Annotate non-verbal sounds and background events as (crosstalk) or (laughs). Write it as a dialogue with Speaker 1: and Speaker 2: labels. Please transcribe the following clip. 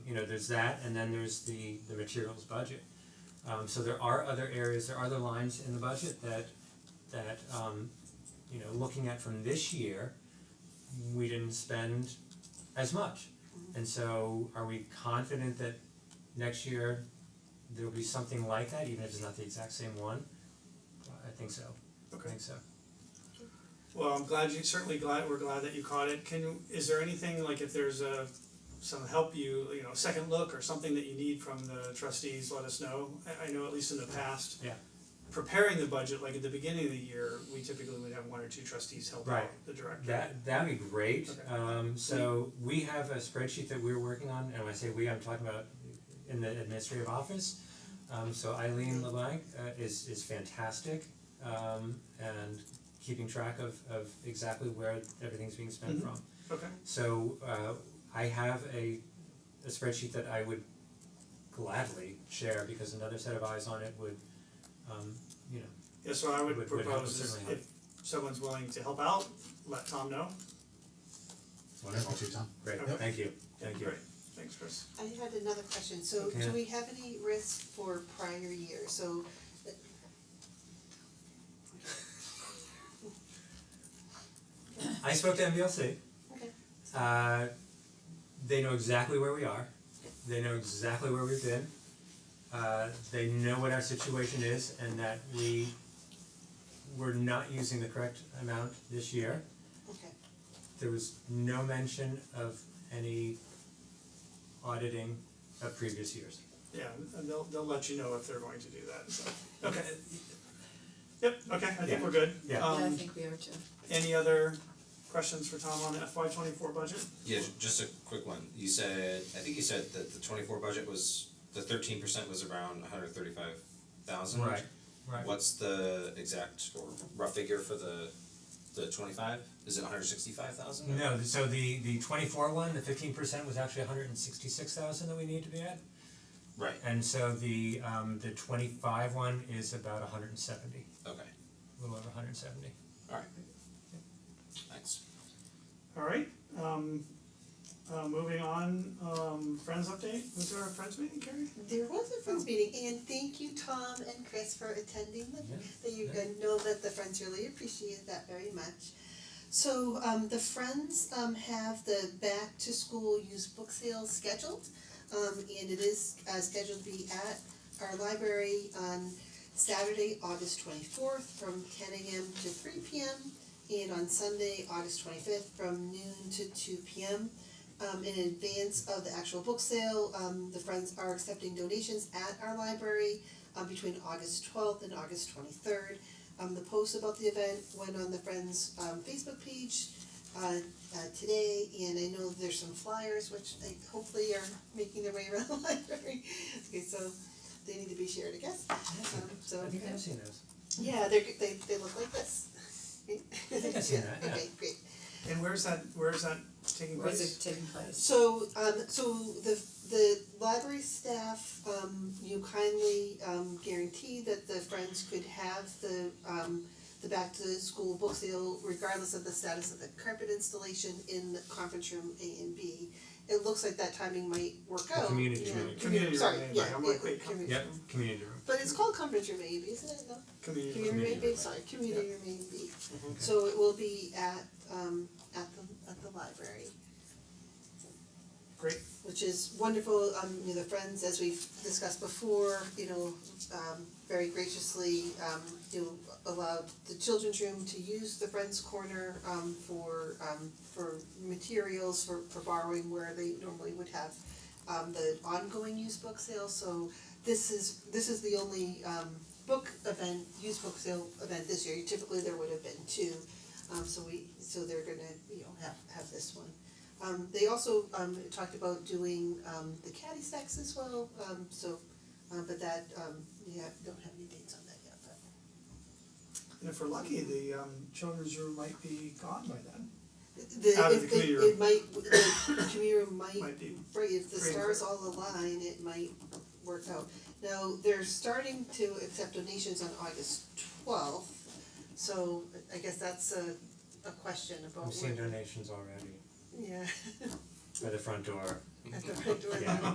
Speaker 1: you know, there's that and then there's the the materials budget. Um so there are other areas, there are other lines in the budget that that um you know, looking at from this year, we didn't spend as much. And so are we confident that next year there'll be something like that, even if it's not the exact same one? I think so, I
Speaker 2: Okay,
Speaker 1: think so.
Speaker 2: well, I'm glad you, certainly glad, we're glad that you caught it, can, you- is there anything, like if there's a, some help you, you know, second look or something that you need from the trustees, let us know, I I know at least in the past.
Speaker 1: Yeah.
Speaker 2: Preparing the budget, like at the beginning of the year, we typically would have one or two trustees help out
Speaker 1: Right.
Speaker 2: the director.
Speaker 1: That that'd be great,
Speaker 2: Okay.
Speaker 1: um so we have a spreadsheet that we're working on, and when I say we, I'm talking about in the administrative office. Um so Eileen LeBlanc uh is is fantastic, um and keeping track of of exactly where everything's being spent
Speaker 2: Mhm.
Speaker 1: from.
Speaker 2: Okay,
Speaker 1: So uh I have a a spreadsheet that I would gladly share because another set of eyes on it would um you know,
Speaker 2: yeah, so I would
Speaker 1: Would- would help,
Speaker 2: propose is
Speaker 1: certainly help.
Speaker 2: if someone's willing to help out, let Tom know,
Speaker 3: Wonderful, Tom.
Speaker 1: great,
Speaker 2: Okay.
Speaker 1: thank you,
Speaker 2: yeah,
Speaker 1: thank you.
Speaker 2: great, thanks Chris.
Speaker 4: I had another question, so
Speaker 1: Yeah.
Speaker 4: do we have any risk for prior years, so uh,
Speaker 1: I spoke to MBLC.
Speaker 4: Okay.
Speaker 1: Uh they know exactly where we are, they know exactly where we've been. Uh they know what our situation is and that we were not using the correct amount this year.
Speaker 4: okay,
Speaker 1: There was no mention of any auditing of previous years.
Speaker 2: Yeah, and they'll they'll let you know if they're going to do that, so, okay. Yep, okay, I think
Speaker 1: Yeah.
Speaker 2: we're good.
Speaker 1: Yeah.
Speaker 5: Yeah, I
Speaker 2: Um
Speaker 5: think we are too.
Speaker 2: any other questions for Tom on the FY twenty four budget?
Speaker 6: Yeah, ju- just a quick one. You said, I think you said that the twenty-four budget was, the thirteen percent was around hundred thirty-five thousand.
Speaker 1: Right, right.
Speaker 6: What's the exact or rough figure for the, the twenty-five? Is it hundred sixty-five thousand?
Speaker 1: No, th- so the the twenty four one, the fifteen percent was actually hundred and sixty six thousand that we need to be at.
Speaker 6: Right,
Speaker 1: And so the um the twenty five one is about hundred and seventy,
Speaker 6: okay,
Speaker 1: a little over hundred and seventy.
Speaker 6: alright. Thanks.
Speaker 2: Alright, um uh moving on, um friends update, was there a friends meeting, Carrie?
Speaker 4: there was a friends meeting, and thank you Tom and Chris for attending the
Speaker 1: Yeah,
Speaker 4: that you
Speaker 1: yeah.
Speaker 4: I know that the friends really appreciate that very much. So um the friends um have the back to school used book sale scheduled. Um and it is uh scheduled to be at our library on Saturday, August twenty fourth from ten AM to three PM. And on Sunday, August twenty fifth from noon to two PM. Um in advance of the actual book sale, um the friends are accepting donations at our library um between August twelfth and August twenty third. Um the post about the event went on the Friends um Facebook page uh uh today and I know there's some flyers which I hopefully are making their way around the (laughs) library. Okay, so they need to be shared, I guess. Um so
Speaker 1: I think I've seen those.
Speaker 4: yeah, they're g- they they look like this.
Speaker 1: I think I've seen that, yeah.
Speaker 4: Okay, great.
Speaker 2: And where's that, where's that taking
Speaker 5: Where's
Speaker 2: place?
Speaker 5: it taking place?
Speaker 4: So um so the the library staff, um you kindly um guarantee that the friends could have the um the back to school book sale regardless of the status of the carpet installation in the conference room A and B. It looks like that timing might work
Speaker 1: The
Speaker 4: out.
Speaker 1: community
Speaker 4: you know,
Speaker 1: room.
Speaker 2: Community room
Speaker 4: sorry,
Speaker 2: A and B,
Speaker 4: yeah,
Speaker 2: I'm
Speaker 4: yeah,
Speaker 2: like, wait, com-
Speaker 4: community room.
Speaker 1: Yep, community room.
Speaker 4: But it's called conference room A and B, isn't it? No?
Speaker 2: Community room.
Speaker 4: Community room
Speaker 1: Community
Speaker 4: A,
Speaker 1: room.
Speaker 4: sorry, community room A and B. So it will be at um at the at the library.
Speaker 2: Great,
Speaker 4: which is wonderful, um, you know, the friends, as we've discussed before, you know, um, very graciously, um, you know, allowed the children's room to use the friends corner, um, for, um, for materials, for, for borrowing where they normally would have, um, the ongoing used book sale, so this is, this is the only, um, book event, used book sale event this year, typically there would have been two, um, so we, so they're gonna, you know, have, have this one. Um they also um talked about doing um the caddy stacks as well, um so um but that um yeah, don't have any dates on that yet, but
Speaker 2: and if we're lucky, the um children's room might be gone by then,
Speaker 4: the
Speaker 2: Out of the
Speaker 4: it it
Speaker 2: community room.
Speaker 4: it might, the community room might,
Speaker 2: might be,
Speaker 4: right, if the
Speaker 2: free and
Speaker 4: stars
Speaker 2: clear.
Speaker 4: all align, it might work out. Now, they're starting to accept donations on August twelfth, so I guess that's a a question about
Speaker 1: We've seen
Speaker 4: what,
Speaker 1: donations already
Speaker 4: yeah, (laughs)
Speaker 1: by the front door.
Speaker 4: at the front door.
Speaker 1: Mm-hmm. Yeah.